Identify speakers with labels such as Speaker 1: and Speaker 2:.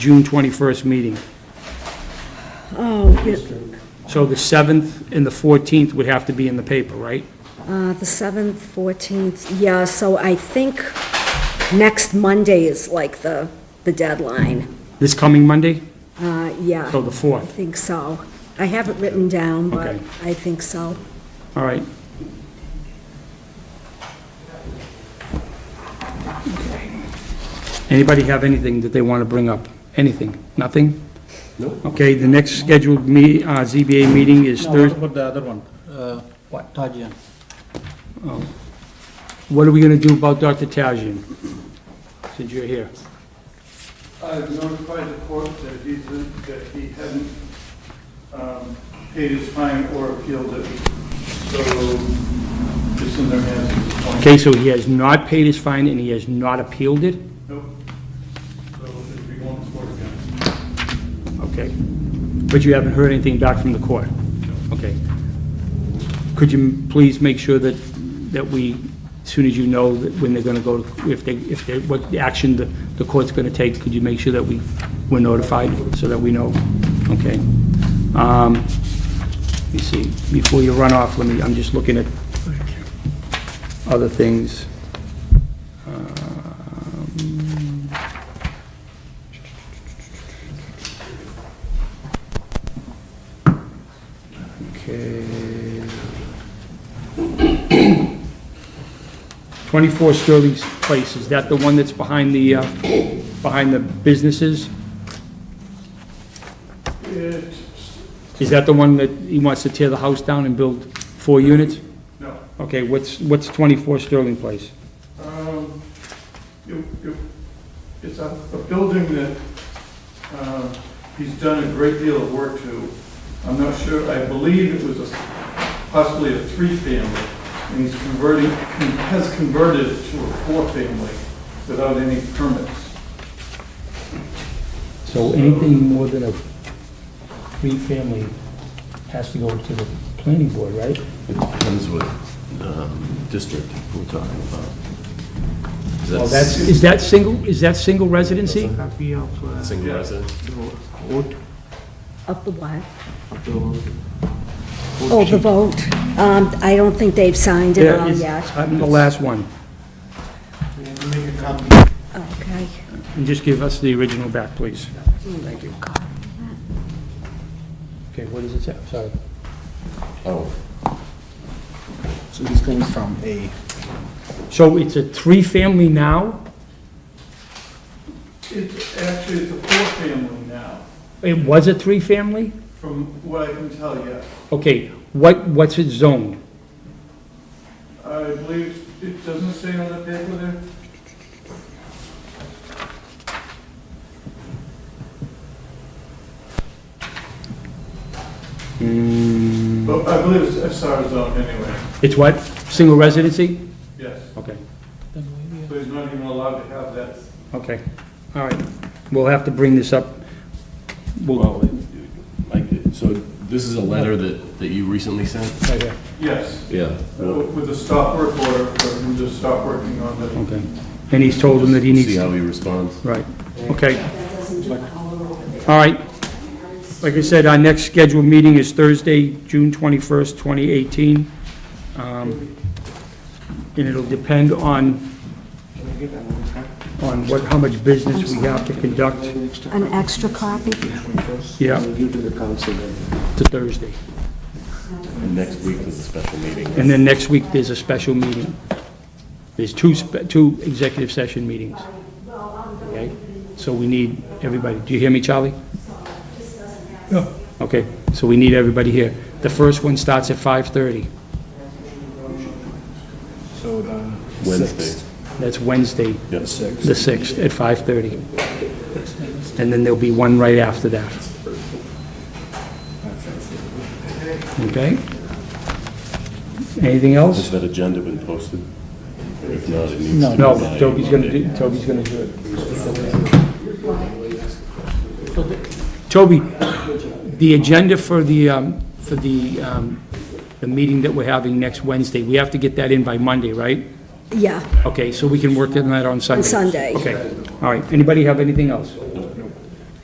Speaker 1: June 21st meeting.
Speaker 2: Oh, yeah,
Speaker 1: So the 7th and the 14th would have to be in the paper, right?
Speaker 2: uh, the 7th, 14th, yeah, so I think next Monday is like the, the deadline.
Speaker 1: This coming Monday?
Speaker 2: Uh, Yeah,
Speaker 1: So
Speaker 2: I
Speaker 1: the 4th,
Speaker 2: think so. I have it written down, but
Speaker 1: Okay.
Speaker 2: I think so.
Speaker 1: all right. Anybody have anything that they want to bring up? Anything? Nothing? No. Okay, the next scheduled me, uh, ZBA meeting is
Speaker 3: No, what
Speaker 1: Thursday.
Speaker 3: about the other one? Uh, What, Tajian?
Speaker 1: What are we going to do about Dr. Tajin? Since you're here.
Speaker 4: I notified the court that he, that he hadn't um, paid his fine or appealed it, so it's in their hands at this point.
Speaker 1: Okay, so he has not paid his fine and he has not appealed it?
Speaker 4: Nope. So it'll be going to court again.
Speaker 1: Okay. But you haven't heard anything back from the court? Okay. Could you m- please make sure that, that we, as soon as you know that when they're going to go, to- if they, if they, what action the, the court's going to take, could you make sure that we, we're notified so that we know? Okay. Um, Let me see, before you run off, let me, I'm just looking at other things. Um, Okay. 24 Sterling Place, is that the one that's behind the, uh, behind the businesses?
Speaker 4: It,
Speaker 1: Is that the one that he wants to tear the house down and build four units?
Speaker 4: no.
Speaker 1: Okay, what's, what's 24 Sterling Place?
Speaker 4: Um, you- you- It's a a building that uh, he's done a great deal of work to. I'm not sure, I believe it was a- possibly a three-family, and he's converting, he has converted it to a four-family without any permits.
Speaker 1: So anything more than a three-family has to go to the planning board, right?
Speaker 5: It depends what um, district we're talking about. 'Cause
Speaker 1: Well, that's, is that single, is that single residency?
Speaker 5: Single resident?
Speaker 2: Up the what? Oh, the vote. Um, I don't think they've signed it all yet.
Speaker 1: I'm uh, the last one.
Speaker 2: Okay.
Speaker 1: And just give us the original back, please. Thank you. Okay, what does it say? Sorry.
Speaker 5: Oh,
Speaker 3: So he's going from a,
Speaker 1: So it's a three-family now?
Speaker 4: It's, actually, it's a four-family now,
Speaker 1: It was a three-family?
Speaker 4: from what I can tell, yes.
Speaker 1: Okay, what, what's it zoned?
Speaker 4: I believe, it doesn't say on the paper there, but I believe it's SR zone anyway,
Speaker 1: It's what? Single residency?
Speaker 4: yes.
Speaker 1: Okay,
Speaker 4: So he's not even allowed to have that.
Speaker 1: okay, all right. We'll have to bring this up. We'll,
Speaker 5: well, like, so this is a letter that, that you recently sent?
Speaker 1: right here,
Speaker 4: Yes,
Speaker 5: Yeah. We'll
Speaker 4: with a stop work order for him to stop working on the,
Speaker 1: okay. And he's told him that he needs to...
Speaker 5: See how he responds.
Speaker 1: Right, okay. All right. Like I said, our next scheduled meeting is Thursday, June 21st, 2018. Um, And it'll depend on, on what, how much business we have to conduct,
Speaker 2: An extra copy?
Speaker 1: yeah,
Speaker 6: Give to the council then.
Speaker 1: to Thursday.
Speaker 5: And next week is a special meeting.
Speaker 1: And then next week, there's a special meeting. There's two, spe- two executive session meetings. Okay? So we need everybody. Do you hear me, Charlie? No. Okay, so we need everybody here. The first one starts at 5:30.
Speaker 3: so the.
Speaker 5: Wednesday.
Speaker 1: That's Wednesday,
Speaker 5: Yes.
Speaker 1: the 6th, at 5:30. And then there'll be one right after that. Okay? Anything else?
Speaker 5: Has that agenda been posted? If not, it needs to be.
Speaker 1: No,
Speaker 5: by
Speaker 1: Toby's gonna
Speaker 5: Monday.
Speaker 1: do, Toby's gonna do it. Toby, the agenda for the, um, for the, um, the meeting that we're having next Wednesday, we have to get that in by Monday, right?
Speaker 2: Yeah.
Speaker 1: Okay, so we can work on that on Sunday?
Speaker 2: Sunday.
Speaker 1: Okay, all right. Anybody have anything else?